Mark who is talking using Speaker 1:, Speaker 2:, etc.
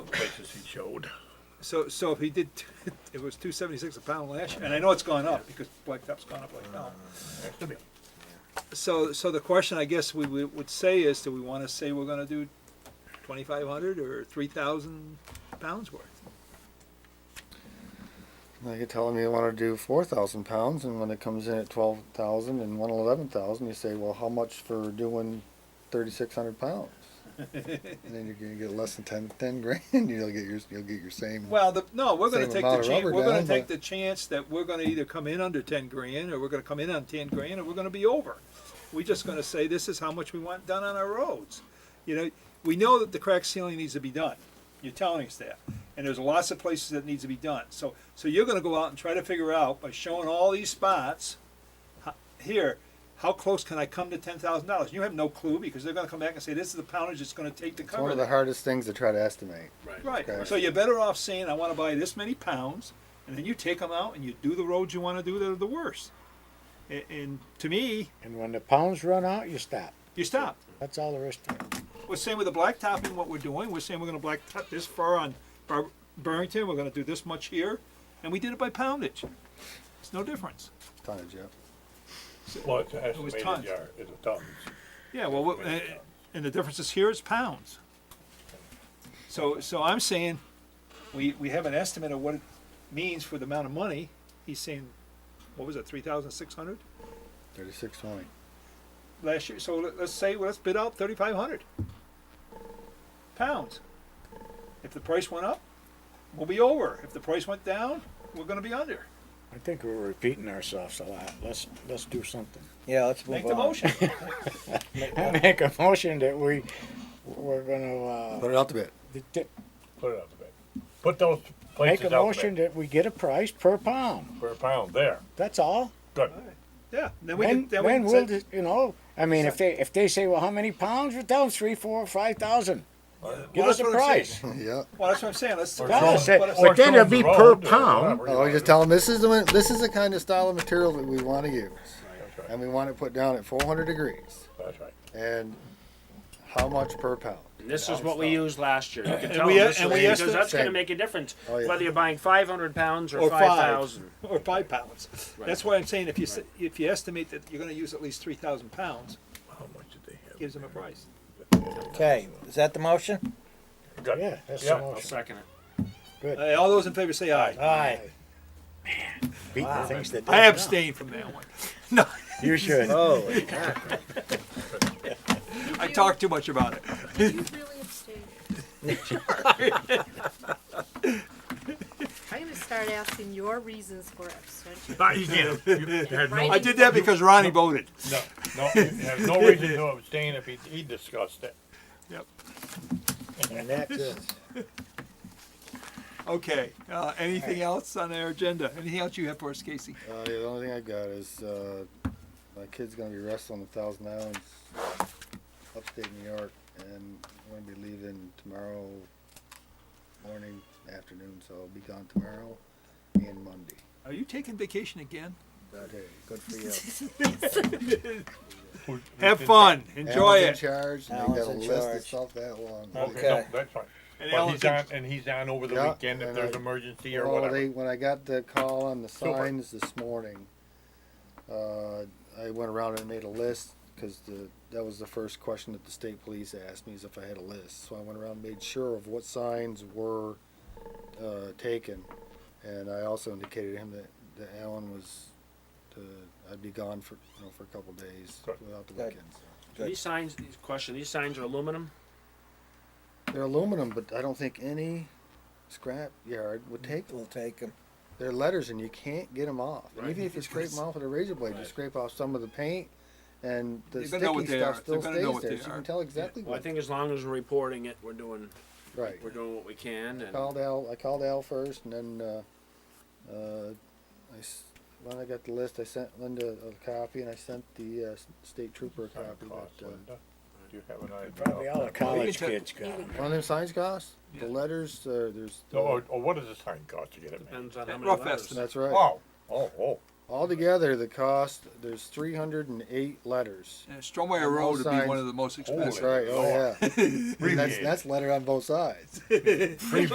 Speaker 1: as he showed.
Speaker 2: So, so if he did, it was two seventy-six a pound last year, and I know it's gone up because blacktop's gone up like hell.
Speaker 1: Has to be.
Speaker 2: So, so the question I guess we would would say is, do we wanna say we're gonna do twenty-five hundred or three thousand pounds worth?
Speaker 3: Now you're telling me you want to do four thousand pounds, and when it comes in at twelve thousand and one eleven thousand, you say, well, how much for doing thirty-six hundred pounds? and then you're gonna get less than 10, 10 grand. You'll get your you'll get your same.
Speaker 2: Well, the, no, we're gonna
Speaker 3: Same
Speaker 2: take the
Speaker 3: amount of
Speaker 2: chance,
Speaker 3: rubber
Speaker 2: we're gonna
Speaker 3: down,
Speaker 2: take
Speaker 3: but-
Speaker 2: the chance that we're gonna either come in under ten grand, or we're gonna come in on ten grand, or we're gonna be over. We're just gonna say, this is how much we want done on our roads. You know, we know that the crack ceiling needs to be done, you're telling us that, and there's lots of places that needs to be done, so, so you're gonna go out and try to figure out by showing all these spots, ho- here, how close can I come to ten thousand dollars? You have no clue, because they're gonna come back and say, this is the poundage it's gonna take to
Speaker 3: it's one
Speaker 2: cover
Speaker 3: of the
Speaker 2: that.
Speaker 3: hardest things to try to estimate.
Speaker 2: Right.
Speaker 3: Okay.
Speaker 2: So you're better off saying, I want to buy this many pounds, and then you take them out and you do the roads you want to do that are the worst. And, and to me,
Speaker 4: And when the pounds run out, you stop.
Speaker 2: you stop.
Speaker 4: That's all there is to it.
Speaker 2: We're saying with the blacktopping, what we're doing, we're saying we're going to blacktop this far on Bur- Burrington, we're going to do this much here, and we did it by poundage. It's no difference.
Speaker 3: Tonnage, yeah.
Speaker 1: Well, it's
Speaker 2: was
Speaker 1: estimated
Speaker 2: tons.
Speaker 1: yard, it's tons.
Speaker 2: Yeah, well, what- and, and the difference is here is pounds. So, so I'm saying, we, we have an estimate of what it means for the amount of money. He's saying, what was it, three thousand six hundred
Speaker 3: Thirty-six twenty.
Speaker 2: last year? So let- let's say, well, let's bid out thirty-five hundred pounds. If the price went up, we'll be over. If the price went down, we're gonna be under.
Speaker 4: I think we're repeating ourselves a lot. Let's, let's do something.
Speaker 5: Yeah, let's move
Speaker 2: Make
Speaker 5: on.
Speaker 2: the motion.
Speaker 4: I make a motion that we, we're gonna, uh,
Speaker 3: Put it out to bid.
Speaker 4: t- t-
Speaker 1: Put it out the bed. Put those
Speaker 4: make
Speaker 1: places
Speaker 4: a
Speaker 1: out the
Speaker 4: motion
Speaker 1: bed
Speaker 4: that we get a price per pound.
Speaker 1: for a pound there.
Speaker 4: That's all.
Speaker 1: Good.
Speaker 2: Yeah, then we can,
Speaker 4: When,
Speaker 2: then we
Speaker 4: when
Speaker 2: can
Speaker 4: will,
Speaker 2: say,
Speaker 4: the- you know, I mean, if they, if they say, well, how many pounds? Well, tell them three, four, five thousand. Give
Speaker 1: Uh,
Speaker 2: Well,
Speaker 4: us
Speaker 2: that's
Speaker 4: a
Speaker 2: what I'm
Speaker 4: price.
Speaker 3: yeah.
Speaker 2: well, that's what I'm saying, let's.
Speaker 1: Or
Speaker 4: That's
Speaker 1: show
Speaker 4: what I
Speaker 1: them-
Speaker 4: said.
Speaker 1: or
Speaker 4: But
Speaker 1: show
Speaker 4: then
Speaker 1: them
Speaker 4: it'll
Speaker 1: the
Speaker 4: be per
Speaker 1: road or
Speaker 4: pound.
Speaker 1: whatever, you
Speaker 3: Oh,
Speaker 1: know.
Speaker 3: you just tell them this is the one- this is the kind of style of material that we want to use,
Speaker 1: That's right,
Speaker 3: and we want it put down at four hundred degrees,
Speaker 1: that's right.
Speaker 3: and how much per pound?
Speaker 6: And This is what we used last year. You can tell
Speaker 2: we-
Speaker 6: them this
Speaker 2: and
Speaker 6: is-
Speaker 2: we
Speaker 6: because that's
Speaker 3: estimate-
Speaker 6: going to make a difference,
Speaker 3: Oh, yeah.
Speaker 6: whether you're buying 500 pounds or
Speaker 2: Or five.
Speaker 6: 5,000.
Speaker 2: or five pounds. That's why I'm saying if you, s- if you estimate that you're gonna use at least three thousand pounds,
Speaker 1: How much did they have?
Speaker 2: gives them a price.
Speaker 5: Okay, is that the motion?
Speaker 1: Good.
Speaker 4: Yeah, that's
Speaker 1: Yeah.
Speaker 4: the
Speaker 6: I'll
Speaker 4: motion.
Speaker 6: second it.
Speaker 2: Uh, all those in favor say aye.
Speaker 5: All right.
Speaker 4: Beating things that
Speaker 2: I
Speaker 4: don't
Speaker 2: abstain from that one. No,
Speaker 4: count. You should.
Speaker 3: Uh,
Speaker 5: Oh,
Speaker 2: I talked too much about it.
Speaker 7: Did you really abstain? I'm gonna start asking your reasons for abstention.
Speaker 1: No, you can't. You- you had no-
Speaker 7: Right.
Speaker 2: I did that because Ronnie voted.
Speaker 1: No, no, you have no reason to abstain if he, he discussed it.
Speaker 2: Yep.
Speaker 4: And that's it.
Speaker 2: Okay, uh, anything else on our agenda? Anything else you have for us, Casey?
Speaker 3: Uh, the only thing I got is uh, my kid's gonna be wrestling a Thousand Islands, upstate New York, and we're gonna be leaving tomorrow morning, afternoon. So I'll be gone tomorrow and Monday.
Speaker 2: Are you taking vacation again?
Speaker 3: Okay, good for you.
Speaker 2: Have fun, enjoy
Speaker 3: Alan's in
Speaker 2: it.
Speaker 3: charge. and
Speaker 5: Alan's
Speaker 3: They got a
Speaker 5: in
Speaker 3: list of
Speaker 5: charge.
Speaker 3: stuff that long.
Speaker 5: Okay.
Speaker 1: No, That's fine.
Speaker 2: And
Speaker 1: But
Speaker 2: Alan's
Speaker 1: he's
Speaker 2: in-
Speaker 1: on, and he's on over the
Speaker 3: Yeah,
Speaker 1: weekend if
Speaker 3: and
Speaker 1: there's
Speaker 3: I-
Speaker 1: emergency or
Speaker 3: Well, Oh, they-
Speaker 1: whatever.
Speaker 3: when I got the call on the
Speaker 1: Super.
Speaker 3: signs this morning, uh, I went around and made a list because the that was the first question that the state police asked me is if I had a list. So I went around and made sure of what signs were uh, taken, and I also indicated to him that, that Alan was to, I'd be gone for you know for a couple days
Speaker 1: Good.
Speaker 3: without the
Speaker 5: Good.
Speaker 3: weekends.
Speaker 5: Good.
Speaker 6: These signs, these- question, these signs are aluminum?
Speaker 3: They're aluminum, but I don't think any scrap yard would take them.
Speaker 5: we'll take them.
Speaker 3: They're letters and you can't get them off. And
Speaker 6: Right.
Speaker 3: even if you scrape them off with a razor blade, you scrape off some of the paint and the
Speaker 2: They're gonna know
Speaker 3: sticky
Speaker 2: what they
Speaker 3: stuff
Speaker 2: are.
Speaker 3: still
Speaker 2: They're gonna know
Speaker 3: stays
Speaker 2: what
Speaker 3: there.
Speaker 2: they
Speaker 3: So you
Speaker 2: are.
Speaker 3: can tell exactly
Speaker 6: Well, I
Speaker 3: what.
Speaker 6: think as long as we're reporting it, we're doing,
Speaker 3: Right.
Speaker 6: we're doing what we can and.
Speaker 3: Called Al, I called Al first and then, uh, uh, I s when I got the list, I sent Linda a copy and I sent the, uh, s- state trooper a
Speaker 1: Time
Speaker 3: copy.
Speaker 1: cost,
Speaker 3: but, uh,
Speaker 1: Linda. Do you have an idea?
Speaker 4: Probably all the college
Speaker 2: can
Speaker 4: kids got 'em.
Speaker 3: One of them signs cost?
Speaker 2: Yeah.
Speaker 3: The letters, uh, there's.
Speaker 6: Oh,
Speaker 1: No, Or, or oh, what does the sign cost to get it made?
Speaker 6: Depends on how many
Speaker 2: Rough
Speaker 6: letters.
Speaker 2: estimate.
Speaker 3: That's right.
Speaker 1: Oh, oh, oh.
Speaker 3: Altogether, the cost, there's three hundred and eight letters.
Speaker 2: Uh, Stromeyer Road would be one of the most
Speaker 1: Holy
Speaker 2: expensive.
Speaker 3: That's right, oh yeah. That's,
Speaker 1: Abbreviated.
Speaker 3: that's letter on both sides.